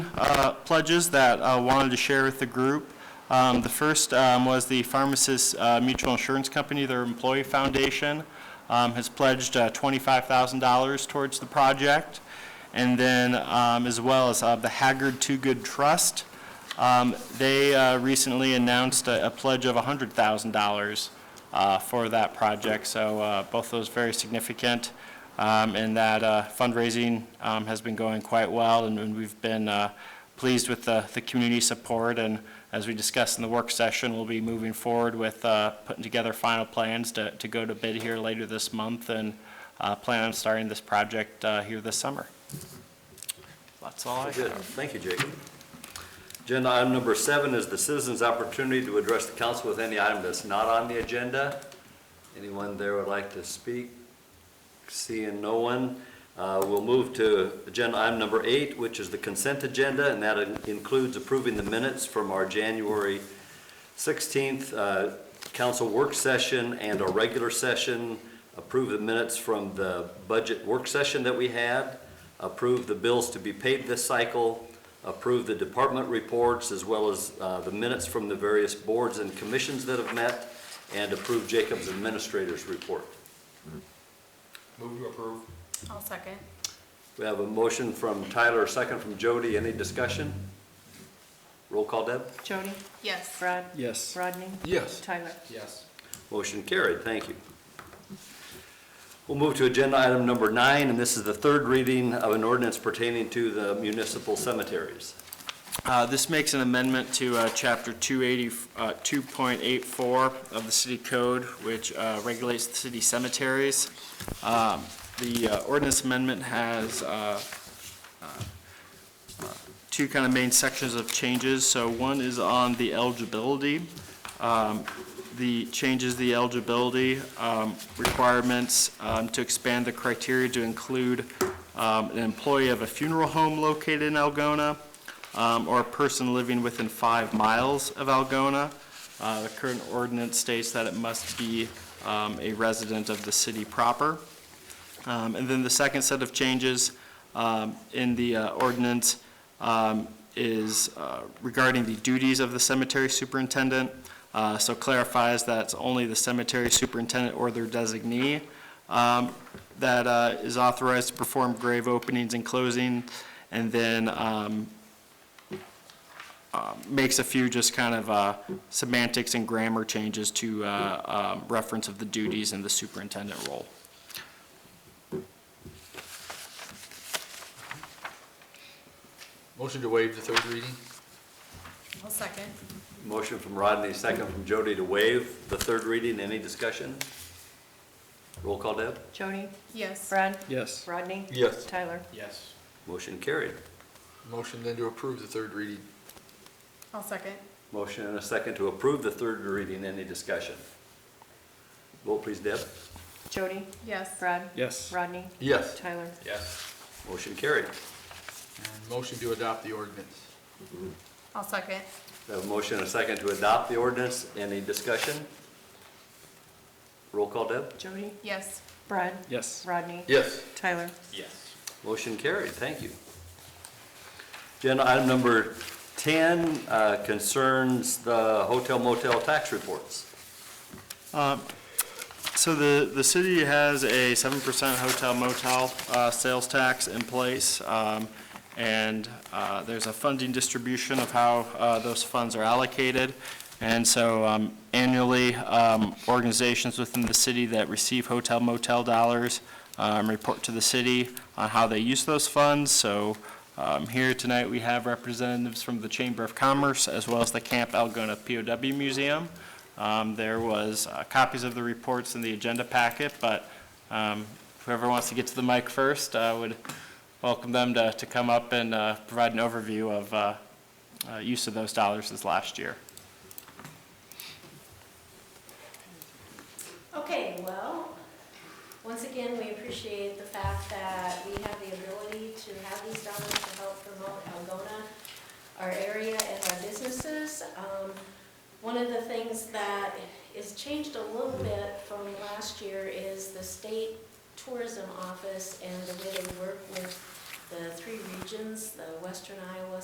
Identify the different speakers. Speaker 1: uh, pledges that I wanted to share with the group. Um, The first um, was the Pharmacists uh, Mutual Insurance Company, their employee foundation, um, has pledged uh, $25,000 towards the project. And then, um, as well as uh, the Haggard Two Good Trust, um, They uh, recently announced a a pledge of $100,000 uh, for that project, so uh, both those very significant, um, and that uh, fundraising um, has been going quite well, and- and we've been uh, pleased with the the community support, and as we discussed in the work session, we'll be moving forward with uh, putting together final plans to to go to bid here later this month, and uh, plan on starting this project uh, here this summer. That's all I have.
Speaker 2: Good, thank you, Jacob. Agenda item number seven is the citizens' opportunity to address the council with any item that's not on the agenda. Anyone there would like to speak? Seeing no one, uh, we'll move to agenda item number eight, which is the consent agenda, and that in- includes approving the minutes from our January 16th uh, council work session and our regular session, approve the minutes from the budget work session that we had, approve the bills to be paid this cycle, approve the department reports, as well as uh, the minutes from the various boards and commissions that have met, and approve Jacob's administrator's report.
Speaker 3: Move to approve.
Speaker 4: I'll second.
Speaker 2: We have a motion from Tyler, a second from Jody. Any discussion? Roll call, Deb.
Speaker 5: Jody?
Speaker 4: Yes.
Speaker 5: Brad?
Speaker 3: Yes.
Speaker 5: Rodney?
Speaker 3: Yes.
Speaker 5: Tyler?
Speaker 3: Yes.
Speaker 2: Motion carried, thank you. We'll move to agenda item number nine, and this is the third reading of an ordinance pertaining to the municipal cemeteries.
Speaker 1: Uh, This makes an amendment to uh, Chapter 280, uh, 2.84 of the city code, which uh, regulates the city cemeteries. Um, The uh, ordinance amendment has uh, uh, uh, two kind of main sections of changes. So one is on the eligibility. Um, The changes, the eligibility um, requirements um, to expand the criteria to include um, an employee of a funeral home located in Algona, um, or a person living within five miles of Algona. Uh, The current ordinance states that it must be um, a resident of the city proper. Um, And then the second set of changes um, in the uh, ordinance um, is uh, regarding the duties of the cemetery superintendent. Uh, So clarifies that it's only the cemetery superintendent or their designee um, that uh, is authorized to perform grave openings and closing, and then um, makes a few just kind of uh, semantics and grammar changes to uh, um, reference of the duties and the superintendent role.
Speaker 3: Motion to waive the third reading?
Speaker 4: I'll second.
Speaker 2: Motion from Rodney, second from Jody to waive the third reading. Any discussion? Roll call, Deb.
Speaker 5: Jody?
Speaker 4: Yes.
Speaker 5: Brad?
Speaker 3: Yes.
Speaker 5: Rodney?
Speaker 3: Yes.
Speaker 5: Tyler?
Speaker 3: Yes.
Speaker 2: Motion carried.
Speaker 3: Motion then to approve the third reading?
Speaker 4: I'll second.
Speaker 2: Motion and a second to approve the third reading. Any discussion? Vote please, Deb.
Speaker 5: Jody?
Speaker 4: Yes.
Speaker 5: Brad?
Speaker 3: Yes.
Speaker 5: Rodney?
Speaker 3: Yes.
Speaker 5: Tyler?
Speaker 3: Yes.
Speaker 2: Motion carried.
Speaker 3: And motion to adopt the ordinance?
Speaker 4: I'll second.
Speaker 2: We have a motion and a second to adopt the ordinance. Any discussion? Roll call, Deb.
Speaker 5: Jody?
Speaker 4: Yes.
Speaker 5: Brad?
Speaker 3: Yes.
Speaker 5: Rodney?
Speaker 3: Yes.
Speaker 5: Tyler?
Speaker 3: Yes.
Speaker 2: Motion carried, thank you. Agenda item number 10 uh, concerns the hotel motel tax reports.
Speaker 1: So the, the city has a seven percent hotel motel uh, sales tax in place, um, and uh, there's a funding distribution of how uh, those funds are allocated. And so um, annually, um, organizations within the city that receive hotel motel dollars um, report to the city on how they use those funds. So um, here tonight, we have representatives from the Chamber of Commerce as well as the Camp Algona POW Museum. Um, There was uh, copies of the reports in the agenda packet, but um, whoever wants to get to the mic first, I would welcome them to to come up and uh, provide an overview of uh, uh, use of those dollars this last year.
Speaker 6: Okay, well, once again, we appreciate the fact that we have the ability to have these dollars to help promote Algona, our area and our businesses. Um, One of the things that is changed a little bit from last year is the state tourism office and the way they work with the three regions, the western Iowa,